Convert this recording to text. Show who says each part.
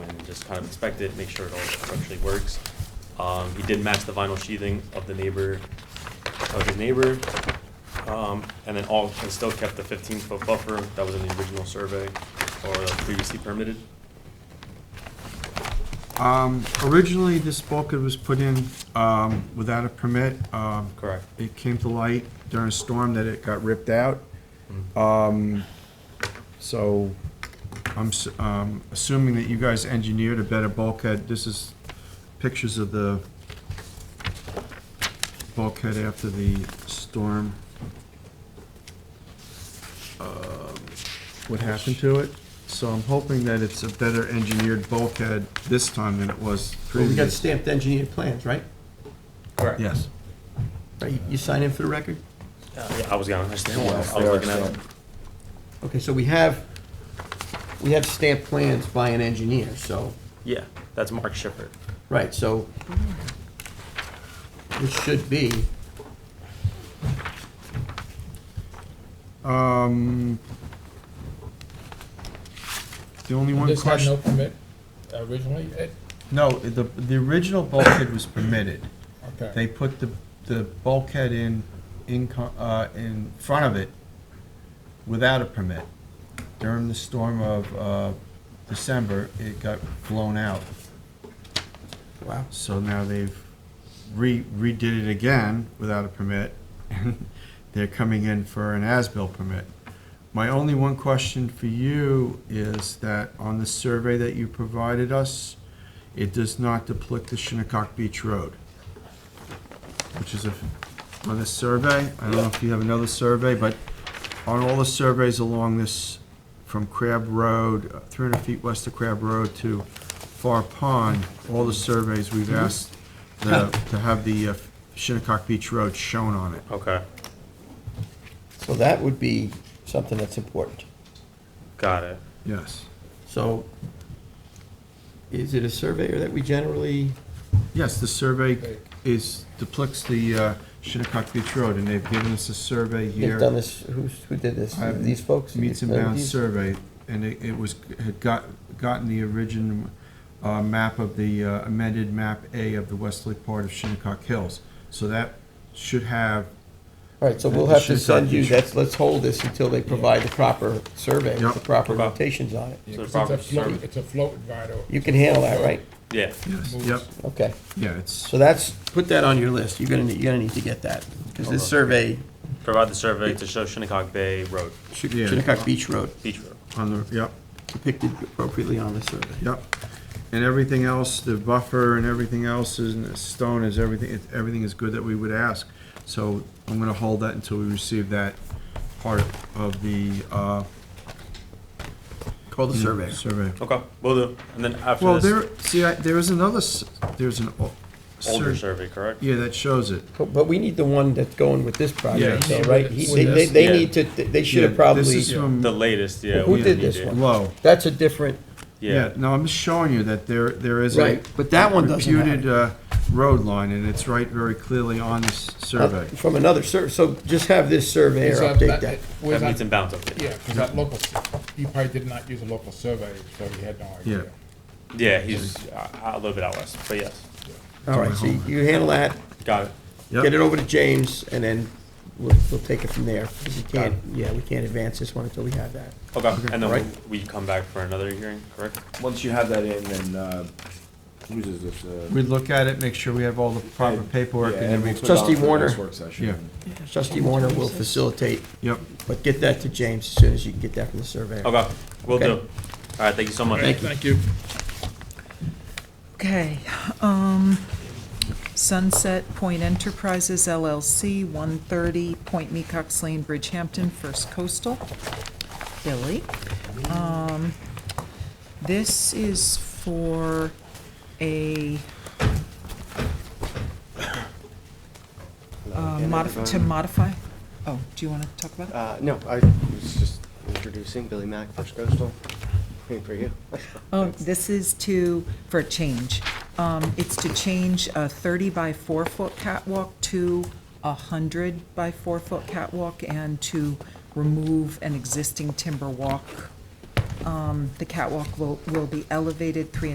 Speaker 1: just kind of inspect it, make sure it all structurally works. Um, he did match the vinyl sheathing of the neighbor, of his neighbor. Um, and then all, and still kept the fifteen foot buffer that was in the original survey or previously permitted.
Speaker 2: Um, originally, this bulkhead was put in, um, without a permit. Um,
Speaker 1: Correct.
Speaker 2: It came to light during a storm that it got ripped out.
Speaker 3: Mm-hmm.
Speaker 2: Um, so I'm, s- um, assuming that you guys engineered a better bulkhead. This is pictures of the bulkhead after the storm. Um, What happened to it? So I'm hoping that it's a better engineered bulkhead this time than it was
Speaker 3: Well, we
Speaker 2: previously.
Speaker 3: got stamped engineered plans, right?
Speaker 1: Correct.
Speaker 2: Yes.
Speaker 3: Right, you- you sign in for the record?
Speaker 1: Uh, Yeah, I was gonna, I was looking at it.
Speaker 3: Okay, so we have, we have stamped plans by an engineer, so,
Speaker 1: Yeah, that's Mark Shepard.
Speaker 3: right, so this should be,
Speaker 2: Um, the only one
Speaker 4: This had
Speaker 2: question,
Speaker 4: no permit originally, it,
Speaker 2: no, the, the original bulkhead was permitted.
Speaker 4: okay.
Speaker 2: They put the, the bulkhead in, in, co- uh, in front of it without a permit. During the storm of, uh, December, it got blown out.
Speaker 3: wow,
Speaker 2: So now they've re, redid it again without a permit, and they're coming in for an as-built permit. My only one question for you is that on the survey that you provided us, it does not depict the Shinnecock Beach Road, which is a, on this survey, I don't know if you have another survey, but on all the surveys along this, from Crab Road, uh, 300 feet west of Crab Road to Far Pond, all the surveys, we've
Speaker 3: Mm-hmm.
Speaker 2: asked the- to have the uh, Shinnecock Beach Road shown on it.
Speaker 1: Okay,
Speaker 3: so that would be something that's important.
Speaker 1: got it.
Speaker 2: Yes.
Speaker 3: So is it a surveyor that we generally,
Speaker 2: Yes, the survey is, depicts the uh, Shinnecock Beach Road, and they've given us a survey here.
Speaker 3: they've done this, who's, who did this,
Speaker 2: I-
Speaker 3: these folks?
Speaker 2: meets and
Speaker 3: Uh,
Speaker 2: bounds
Speaker 3: these-
Speaker 2: survey, and it, it was, had got, gotten the origin, uh, map of the uh, amended map A of the westerly part of Shinnecock Hills. So that should have,
Speaker 3: All right, so we'll
Speaker 2: That
Speaker 3: have to
Speaker 2: should
Speaker 3: send you,
Speaker 2: be-
Speaker 3: that's, let's hold this until they provide the proper survey, with the
Speaker 2: Yep.
Speaker 3: proper
Speaker 1: Okay.
Speaker 3: notations on it.
Speaker 4: Yeah,
Speaker 1: So
Speaker 4: 'cause
Speaker 1: proper
Speaker 4: it's a float-
Speaker 1: survey.
Speaker 4: It's a float vinyl.
Speaker 3: You can handle that, right?
Speaker 1: Yeah,
Speaker 2: yes, yep,
Speaker 3: Okay,
Speaker 2: yeah, it's,
Speaker 3: so that's, put that on your list, you're gonna, need- you're gonna need to get that, because this
Speaker 1: Okay.
Speaker 3: survey,
Speaker 1: provide the survey to show Shinnecock Bay Road,
Speaker 2: Yeah.
Speaker 3: Shinnecock Beach Road,
Speaker 1: Beach Road.
Speaker 2: on the, yep,
Speaker 3: depicted appropriately on the survey.
Speaker 2: yep. And everything else, the buffer and everything else is, and the stone is everything, it- everything is good that we would ask. So I'm gonna hold that until we receive that part of the, uh.
Speaker 3: Call
Speaker 2: Mm.
Speaker 3: the surveyor.
Speaker 2: Survey.
Speaker 1: Okay, will do. And then after
Speaker 2: Well,
Speaker 1: this,
Speaker 2: there, see, I- there is another, s- there's an. o-
Speaker 1: older
Speaker 2: sur-
Speaker 1: survey, correct?
Speaker 2: Yeah, that shows it.
Speaker 3: But, but we need the one that's going with this project,
Speaker 4: Yeah.
Speaker 3: though, right? He- They, they,
Speaker 1: Yeah.
Speaker 3: they need to, they should have
Speaker 2: Yeah, This
Speaker 3: probably,
Speaker 2: is from
Speaker 1: The latest, yeah.
Speaker 3: Who
Speaker 1: we
Speaker 3: did
Speaker 1: need
Speaker 3: this
Speaker 1: it.
Speaker 3: one?
Speaker 2: low.
Speaker 3: that's a different,
Speaker 2: Yeah,
Speaker 1: Yeah,
Speaker 2: no, I'm just showing you that there, there is a
Speaker 3: Right, but that one doesn't have it.
Speaker 2: reputed, uh, road line, and it's right very clearly on this survey.
Speaker 3: uh, from another sur, so just have this surveyor
Speaker 4: Is
Speaker 3: update that.
Speaker 4: was
Speaker 1: that
Speaker 4: uh, that-
Speaker 1: meets and bounds update.
Speaker 4: Yeah, because that local, he probably did not use a local survey, so he had no
Speaker 2: Yeah.
Speaker 4: idea.
Speaker 1: Yeah, he's uh, a little bit out west, but yes,
Speaker 3: All right, so you you handle that,
Speaker 1: got it.
Speaker 2: Yep.
Speaker 3: get it over to James, and then we'll, we'll take it from there, because we can't, yeah, we can't advance this one until we have that.
Speaker 1: Okay, and
Speaker 3: right.
Speaker 1: then we we come back for another hearing, correct?
Speaker 5: Once you have that in, then, uh, whose is this? uh,
Speaker 2: We look at it, make sure we have all the proper paperwork,
Speaker 5: yeah,
Speaker 2: and then
Speaker 5: we'll
Speaker 2: we,
Speaker 5: put it on
Speaker 3: Trustee
Speaker 5: for the
Speaker 3: Warner.
Speaker 5: next work session.
Speaker 2: Yeah.
Speaker 3: Trustee Warner will facilitate,
Speaker 2: yep,
Speaker 3: but get that to James as soon as you can get that from the surveyor.
Speaker 1: Okay, will
Speaker 3: Okay.
Speaker 1: do. All right, thank you so much.
Speaker 3: Thank you.
Speaker 4: Thank you.
Speaker 6: Okay, um, Sunset Point Enterprises LLC, 130 Point Mecox Lane, Bridgehampton, First Coastal, Billy. Um, This is for a uh, modif, to modify, oh, do you want to talk about it?
Speaker 7: Uh, no, I was just introducing Billy Mack, First Coastal. Waiting for you.
Speaker 6: Oh, this is to, for a change. Um, It's to change a 30 by 4-foot catwalk to a 100 by 4-foot catwalk and to remove an existing timber walk. Um, The catwalk will will be elevated three